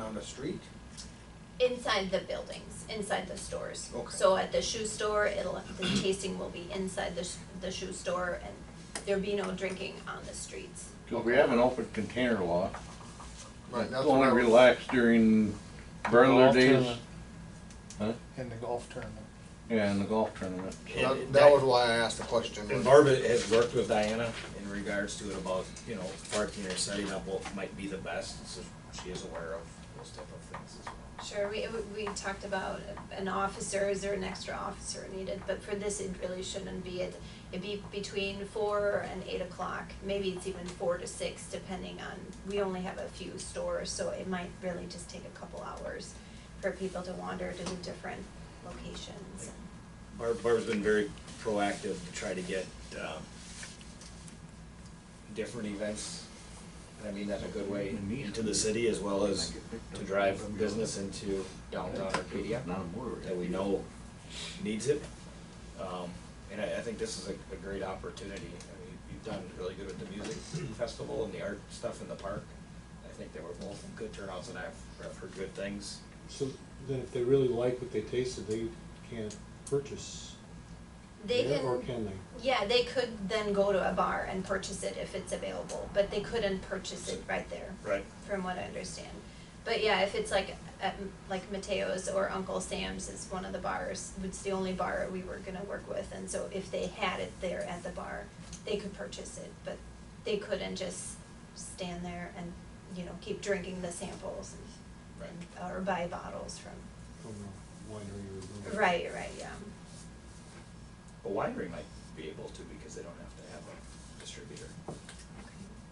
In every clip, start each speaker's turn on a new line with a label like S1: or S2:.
S1: on the street?
S2: Inside the buildings, inside the stores.
S1: Okay.
S2: So at the shoe store, it'll, the tasting will be inside the, sh- the shoe store and there'll be no drinking on the streets.
S3: Cause we have an open container law,
S4: Right,
S3: it's
S4: that's what
S3: only
S4: I was-
S3: relaxed during burglar
S5: Golf
S3: days,
S5: tournament.
S3: Huh?
S5: In the golf tournament.
S3: yeah, and the golf tournament.
S4: That, that was why I asked the question.
S6: And Barbara has worked with Diana in regards to it about, you know, parking or setting up what might be the best, so she is aware of those type of things as well.
S2: Sure, we, we talked about an officer, is there an extra officer needed, but for this, it really shouldn't be, it, it'd be between four and eight o'clock, maybe it's even four to six, depending on, we only have a few stores, so it might really just take a couple hours for people to wander to the different locations.
S6: Barb, Barb's been very proactive to try to get, um, different events, and I mean that in a good way, into the city as well as to drive business into downtown Arcadia that we know needs it. Um, and I, I think this is a, a great opportunity. I mean, you've done really good with the music festival and the art stuff in the park. I think they were both good turnouts and I've, I've heard good things.
S7: So then if they really like what they tasted, they can't purchase
S2: They
S7: there,
S2: can.
S7: or can they?
S2: Yeah, they could then go to a bar and purchase it if it's available, but they couldn't purchase it right there.
S6: Right.
S2: From what I understand. But yeah, if it's like, at, like Mateo's or Uncle Sam's is one of the bars, it's the only bar we were gonna work with, and so if they had it there at the bar, they could purchase it, but they couldn't just stand there and, you know, keep drinking the samples and, and, or buy bottles from,
S7: From a winery or brewery?
S2: right, right, yeah.
S6: A winery might be able to because they don't have to have a distributor,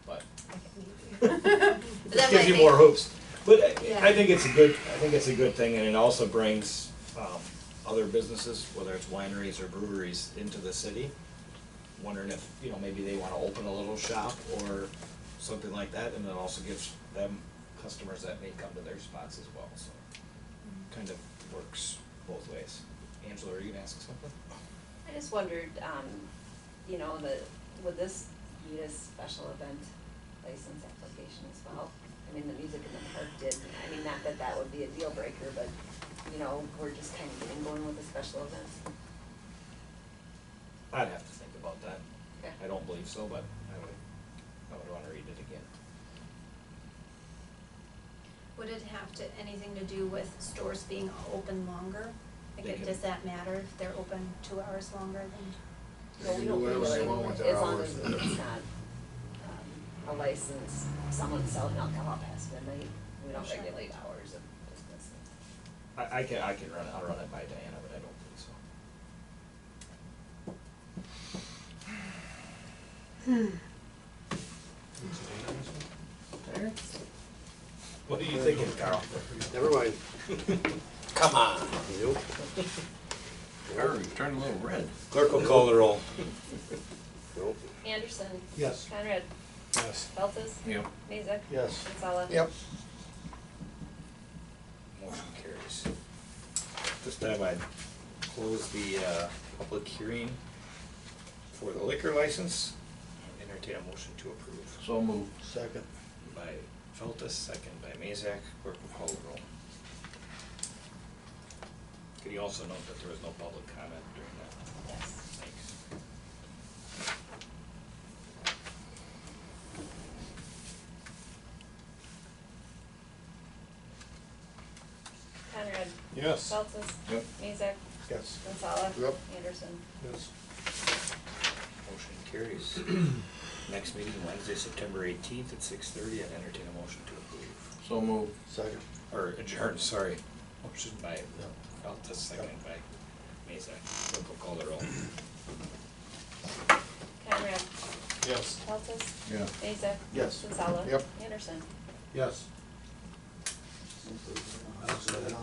S6: but
S2: Look at me. But
S6: This
S2: that
S6: gives
S2: might
S6: you
S2: make-
S6: more hopes. But
S2: Yeah.
S6: I, I think it's a good, I think it's a good thing, and it also brings, um, other businesses, whether it's wineries or breweries, into the city. Wondering if, you know, maybe they wanna open a little shop or something like that, and it also gives them customers that may come to their spots as well, so. Kind of works both ways. Angela, are you gonna ask something?
S8: I just wondered, um, you know, the, would this be a special event license application as well? I mean, the music in the park did, I mean, not that that would be a deal breaker, but, you know, we're just kind of getting going with a special event.
S6: I'd have to think about that.
S8: Okay.
S6: I don't believe so, but I would, I would wanna read it again.
S2: Would it have to, anything to do with stores being open longer? Like,
S6: They
S2: it-
S6: can-
S2: does that matter if they're open two hours longer than?
S8: Well,
S4: can
S8: we
S4: do
S8: don't
S4: whatever they
S8: really,
S4: want with their
S8: as long
S4: hours.
S8: as it's not, um, a license, someone selling alcohol past midnight, we don't
S2: Sure.
S8: regulate hours of business.
S6: I, I can, I can run it, I'll run it by Diana, but I don't think so. What are you thinking, Carl?
S4: Never mind. Come on, you.
S3: Or turn a little red.
S6: Clerk will call the roll.
S4: Nope.
S8: Anderson,
S7: Yes.
S8: Conrad,
S7: Yes.
S8: Feltes,
S3: Yep.
S8: Mazak,
S7: Yes.
S8: Sensala.
S4: Yep.
S6: Motion carries. This time I'd close the, uh, public hearing for the liquor license. Entertain a motion to approve
S3: So moved.
S5: Second.
S6: by Feltus, second by Mazak, clerk will call the roll. Could you also note that there was no public comment during that?
S8: Yes.
S6: Thanks.
S8: Conrad,
S7: Yes.
S8: Feltes,
S3: Yep.
S8: Mazak,
S7: Yes.
S8: Sensala.
S4: Yep.
S8: Anderson.
S7: Yes.
S6: Motion carries. Next meeting Wednesday, September eighteenth at six thirty, I'd entertain a motion to approve,
S3: So moved.
S4: Second.
S6: or adjourn, sorry. Motion by, Feltus, second by Mazak, clerk will call the roll.
S8: Conrad,
S7: Yes.
S8: Feltes,
S3: Yeah.
S8: Mazak.
S4: Yes.
S8: Sensala.
S4: Yep.
S8: Anderson.
S7: Yes.